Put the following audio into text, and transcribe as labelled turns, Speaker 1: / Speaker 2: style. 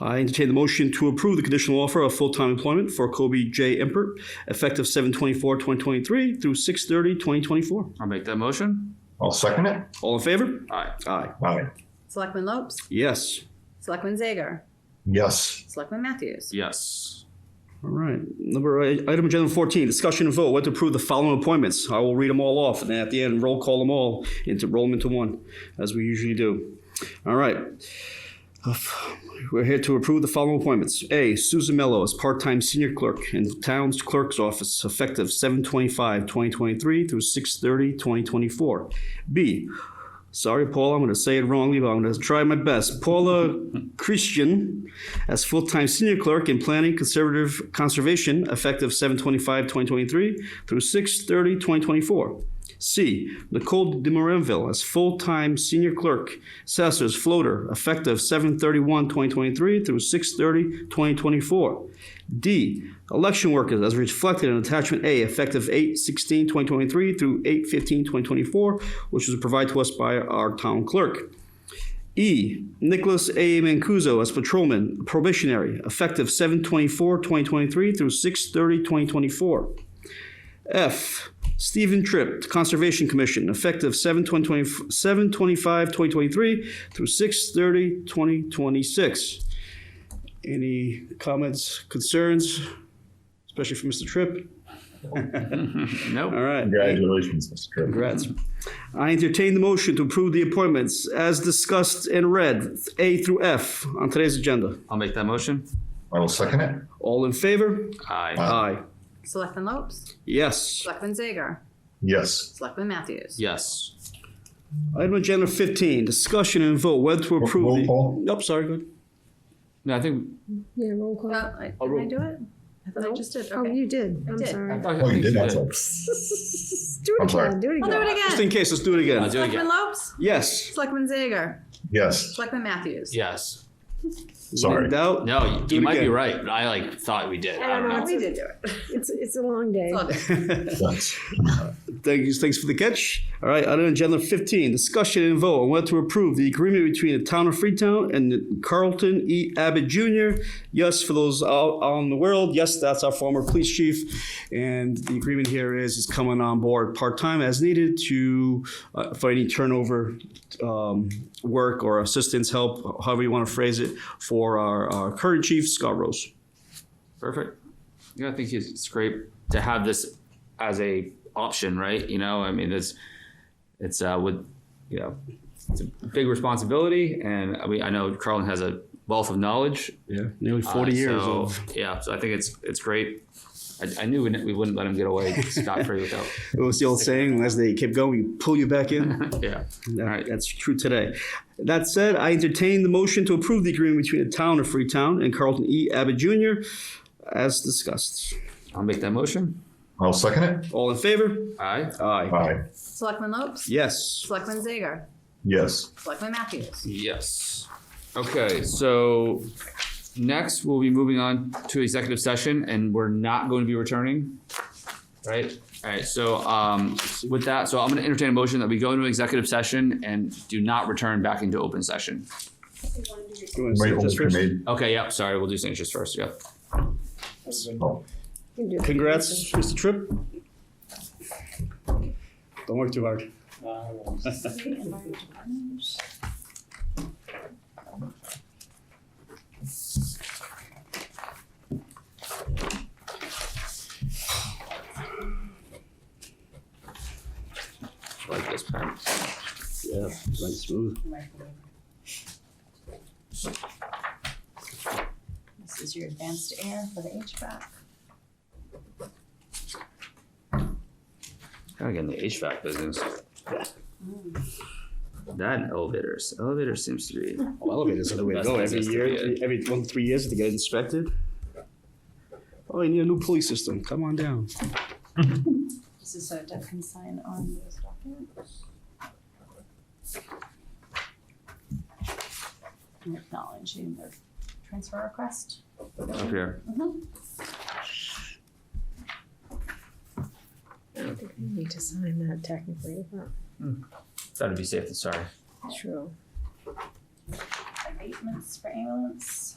Speaker 1: I entertain the motion to approve the conditional offer of full-time employment for Kobe J. Empert, effective 7/24/2023 through 6/30/2024.
Speaker 2: I'll make that motion.
Speaker 3: I'll second it.
Speaker 1: All in favor?
Speaker 2: Aye.
Speaker 1: Aye.
Speaker 3: Aye.
Speaker 4: Selectman Lopes,
Speaker 1: Yes.
Speaker 4: Selectman Zager,
Speaker 3: Yes.
Speaker 4: Selectman Matthews.
Speaker 2: Yes.
Speaker 1: All right. Number, uh, item agenda 14, discussion and vote, what to approve the following appointments. I will read them all off, and then at the end, roll call them all, into, roll them into one, as we usually do. All right. Uh, We're here to approve the following appointments. A, Susan Mello as part-time senior clerk in the town's clerk's office, effective 7/25/2023 through 6/30/2024. B, sorry, Paula, I'm going to say it wrongly, but I'm going to try my best. Paula Christian as full-time senior clerk in planning conservative conservation effective 7/25/2023 through 6/30/2024. C. Nicole de Moranville as full-time senior clerk, assessors floater effective 7/31/2023 through 6/30/2024. D. Election workers as reflected in attachment A effective 8/16/2023 through 8/15/2024, which was provided to us by our town clerk. E. Nicholas A. Mancuso as patrolman, probationary, effective 7/24/2023 through 6/30/2024. F. Stephen Tripp, Conservation Commission, effective 7/25/2023 through 6/30/2026. Any comments, concerns, especially for Mr. Tripp? All
Speaker 2: Nope.
Speaker 1: right.
Speaker 3: Congratulations, Mr. Tripp.
Speaker 1: Congrats. I entertain the motion to approve the appointments as discussed and read, A through F, on today's agenda.
Speaker 2: I'll make that motion.
Speaker 3: I will second it.
Speaker 1: All in favor?
Speaker 2: Aye.
Speaker 1: Aye.
Speaker 4: Selectman Lopes,
Speaker 1: Yes.
Speaker 4: Selectman Zager,
Speaker 3: Yes.
Speaker 4: Selectman Matthews.
Speaker 2: Yes.
Speaker 1: Item agenda 15, discussion and vote whether to approve
Speaker 3: Roll
Speaker 1: the...
Speaker 3: call.
Speaker 1: Nope, sorry, go ahead.
Speaker 2: No, I think,
Speaker 5: Yeah, roll call.
Speaker 4: Oh, I-
Speaker 2: I'll
Speaker 4: did I
Speaker 2: roll.
Speaker 4: do it? I thought I just did,
Speaker 5: Oh,
Speaker 4: okay.
Speaker 5: you did. I'm
Speaker 4: did.
Speaker 2: I
Speaker 5: sorry.
Speaker 2: thought- I
Speaker 3: Oh, you
Speaker 2: think
Speaker 3: did.
Speaker 2: you
Speaker 3: That's
Speaker 2: did.
Speaker 3: it.
Speaker 5: do
Speaker 3: I'm
Speaker 5: it
Speaker 3: sorry.
Speaker 5: again. Do it
Speaker 4: I'll do
Speaker 5: again.
Speaker 4: it
Speaker 1: Just
Speaker 4: again.
Speaker 1: in case, let's do it
Speaker 2: I'll
Speaker 1: again.
Speaker 2: do it
Speaker 4: Selectman
Speaker 2: again.
Speaker 4: Lopes,
Speaker 1: Yes.
Speaker 4: Selectman Zager,
Speaker 3: Yes.
Speaker 4: Selectman Matthews.
Speaker 2: Yes.
Speaker 3: Sorry.
Speaker 1: In doubt?
Speaker 2: No, you-
Speaker 1: Do
Speaker 2: you
Speaker 1: it
Speaker 2: might be
Speaker 1: again.
Speaker 2: right. but I like thought we did. I don't
Speaker 4: Oh,
Speaker 2: know.
Speaker 4: We did do it.
Speaker 5: It's it's a long day.
Speaker 4: It's all good.
Speaker 3: Yes.
Speaker 1: Thank you, thanks for the catch. All right, item agenda 15, discussion and vote on whether to approve the agreement between the town of Freetown and Carlton E. Abbott Jr. Yes, for those out out in the world, yes, that's our former police chief. And the agreement here is, is coming on board part-time as needed to, uh, for any turnover um, work or assistance help, however you want to phrase it, for our, our current chief, Scott Rose.
Speaker 2: Perfect. Yeah, I think it's it's great to have this as a option, right? You know, I mean, it's it's uh, with you know, it's a big responsibility, and I mean, I know Carlin has a wealth of knowledge.
Speaker 1: Yeah. Nearly
Speaker 2: uh,
Speaker 1: 40 years
Speaker 2: so,
Speaker 1: of
Speaker 2: Yeah, so I think it's it's great. I, I knew we, we wouldn't let him get away scot free without.
Speaker 1: It was the old saying, as they kept going, we pull you back in.
Speaker 2: Yeah.
Speaker 1: That-
Speaker 2: Right.
Speaker 1: That's true today. That said, I entertain the motion to approve the agreement between the town of Freetown and Carlton E. Abbott Jr. as discussed.
Speaker 2: I'll make that motion.
Speaker 3: I'll second it.
Speaker 1: All in favor?
Speaker 2: Aye.
Speaker 1: Aye.
Speaker 3: Aye.
Speaker 4: Selectman Lopes,
Speaker 1: Yes.
Speaker 4: Selectman Zager,
Speaker 3: Yes.
Speaker 4: Selectman Matthews.
Speaker 2: Yes. Okay, so next we'll be moving on to executive session and we're not going to be returning. Right? Alright, so um with that, so I'm gonna entertain a motion that we go into executive session and do not return back into open session.
Speaker 1: You wanna say
Speaker 3: Wait,
Speaker 1: this first?
Speaker 3: made-
Speaker 2: Okay, yep, sorry, we'll do signatures first, yep.
Speaker 3: oh,
Speaker 5: You do it.
Speaker 1: Congrats, Mr. Tripp. Don't work too hard.
Speaker 2: Like this pen.
Speaker 1: Yeah, nice smooth.
Speaker 4: This is your advanced air for the HVAC.
Speaker 2: Gotta get in the HVAC business. That and elevators. Elevators seems to be,
Speaker 1: Well, elevators are the way to
Speaker 2: Best
Speaker 1: go. Every
Speaker 2: business to
Speaker 1: year,
Speaker 2: be in.
Speaker 1: every one, three years to get inspected. Oh, you need a new police system. Come on down.
Speaker 4: This is so Deb can sign on those documents. And Acknowledging their transfer request.
Speaker 2: up here.
Speaker 5: I think we need to sign that technically. Huh?
Speaker 2: Thought it'd be safe and sorry.
Speaker 5: True.
Speaker 4: Abatements for ambulance.